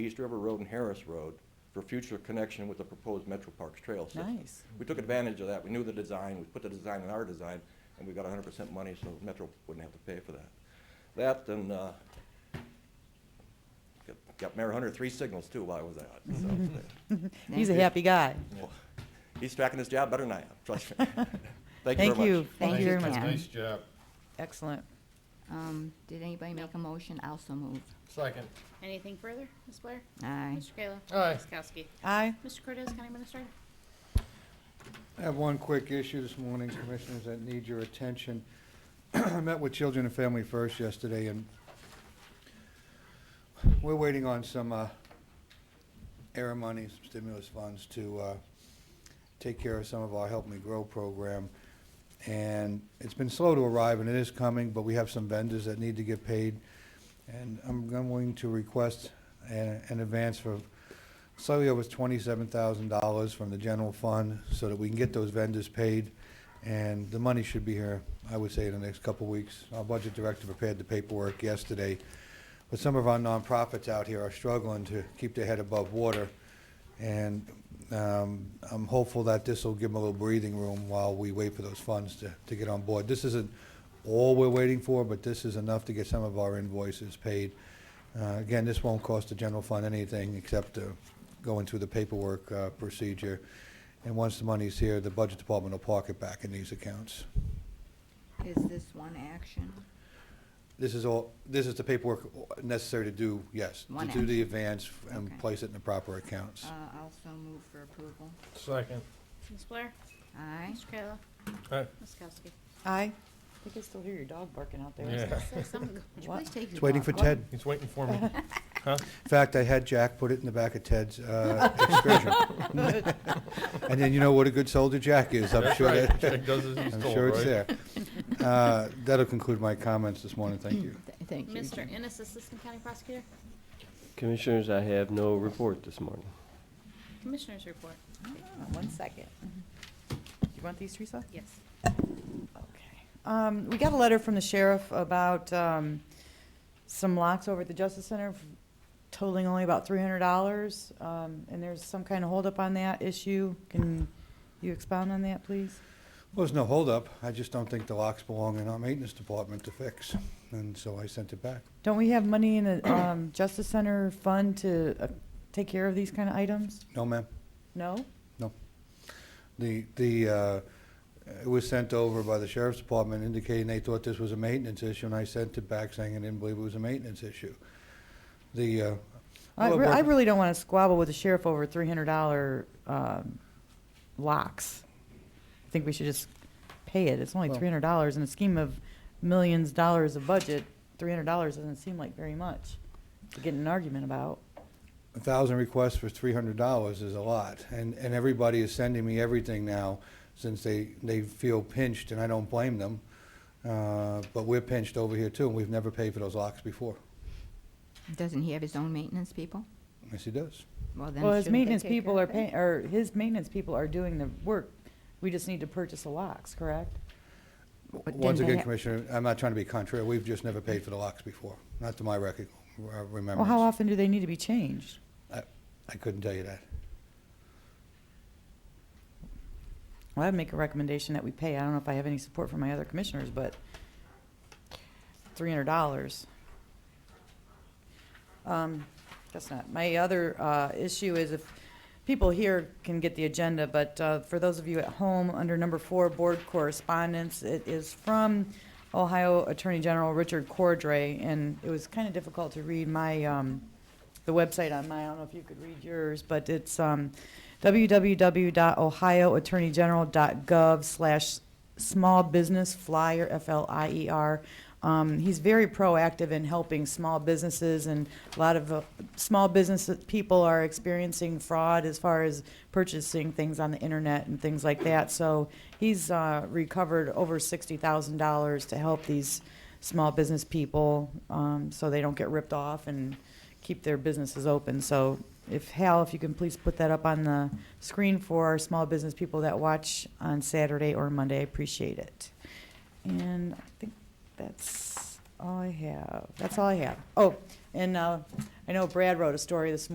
East River Road and Harris Road for future connection with the proposed Metro Parks Trail system. Nice. We took advantage of that. We knew the design, we put the design in our design, and we got hundred percent money, so Metro wouldn't have to pay for that. That and, uh, got- got Mayor Hunter three signals too while I was out, so. He's a happy guy. well, He's tracking his job better than I am, trust me. Thank you very Thank you. much. Thank you very Nice- much. Nice job. Excellent. Um, did anybody make a motion? I Also move. Second. Anything further, Ms. Blair? Aye. Mr. Kayla? Aye. Ms. Kowski? Aye. Mr. Cortez, County Administrator? I have one quick issue this morning, Commissioners, that need your attention. I met with Children and Family First yesterday, and we're waiting on some uh, air money, some stimulus funds to uh, take care of some of our Help Me Grow program. And it's been slow to arrive, and it is coming, but we have some vendors that need to get paid. And I'm going to request a- an advance for slightly over twenty-seven thousand dollars from the general fund so that we can get those vendors paid. And the money should be here, I would say, in the next couple of weeks. Our budget director prepared the paperwork yesterday. But some of our nonprofits out here are struggling to keep their head above water. And um, I'm hopeful that this will give them a little breathing room while we wait for those funds to, to get on board. This isn't all we're waiting for, but this is enough to get some of our invoices paid. Uh, Again, this won't cost the general fund anything except uh, going through the paperwork uh, procedure. And once the money's here, the budget department will park it back in these accounts. Is this one action? This is all, this is the paperwork necessary to do, yes, to One do the advance and Okay. place it in the proper accounts. Uh, also move for approval. Second. Uh, Ms. Blair? Aye. Mr. Kayla? Aye. Ms. Kowski? Aye. I can still hear your dog barking out Yeah. Say something. Would you What? please take your It's waiting for dog? Ted. He's waiting for me. Huh? In fact, I had Jack put it in the back of Ted's uh, excursion. And then you know what a good soldier Jack is, I'm That's sure right. that, Jack does as he's I'm told, sure it's right? there. Uh, That'll conclude my comments this morning, thank you. Th- Thank you. Mr. Jim. Ennis, Assistant County Prosecutor? Commissioners, I have no report this morning. Commissioners report. Ah, One second. Do you want these, Teresa? Yes. Okay. Um, we got a letter from the sheriff about, um, some locks over at the Justice Center totaling only about three hundred dollars. Um, and there's some kind of holdup on that issue. Can you expound on that, please? Well, there's no holdup, I just don't think the locks belong in our maintenance department to fix, and so I sent it back. Don't we have money in the, um, Justice Center fund to uh, take care of these kind of items? No, ma'am. No? The, the, uh, it was sent over by the sheriff's department indicating they thought this was a maintenance issue, and I sent it back saying I didn't believe it was a maintenance issue. The, uh, I, Well, re- I Barbara- really don't want to squabble with the sheriff over three hundred dollar um, locks. I think we should just pay it. It's only Well- three hundred dollars in a scheme of millions dollars of budget. Three hundred dollars doesn't seem like very much to get in an argument about. a thousand requests for three hundred dollars is a lot, and, and everybody is sending me everything now, since they, they feel pinched, and I don't blame them. Uh, but we're pinched over here too, and we've never paid for those locks before. Doesn't he have his own maintenance people? Yes, he does. Well, then Well, his shouldn't they maintenance take care people of are it? paying, or his maintenance people are doing the work. We just need to purchase the locks, correct? But didn't Once they again, ha- Commissioner, I'm not trying to be contrary, we've just never paid for the locks before, not to my record, uh, Well, how remembrance. often do they need to be changed? I couldn't tell you that. Well, I'd make a recommendation that we pay. I don't know if I have any support from my other commissioners, but three hundred dollars. Um, guess not. My other, uh, issue is if people here can get the agenda, but, uh, for those of you at home, under number four, board correspondence, it is from Ohio Attorney General Richard Cordray, and it was kind of difficult to read my, um, the website on mine. I don't know if you could read yours, but it's, um, www.ohioattorneygeneral.gov slash small business flyer, F-L-I-E-R. E Um, he's very proactive in helping small businesses, and a lot of uh, small business people are experiencing fraud as far as purchasing things on the internet and things like that. So he's uh, recovered over $60,000 to help these small business people um, so they don't get ripped off and keep their businesses open. So if Hal, if you can please put that up on the screen for our small business people that watch on Saturday or Monday, I appreciate it. And I think that's all I have. That's all I have. Oh, and uh, I know Brad wrote a story this morning.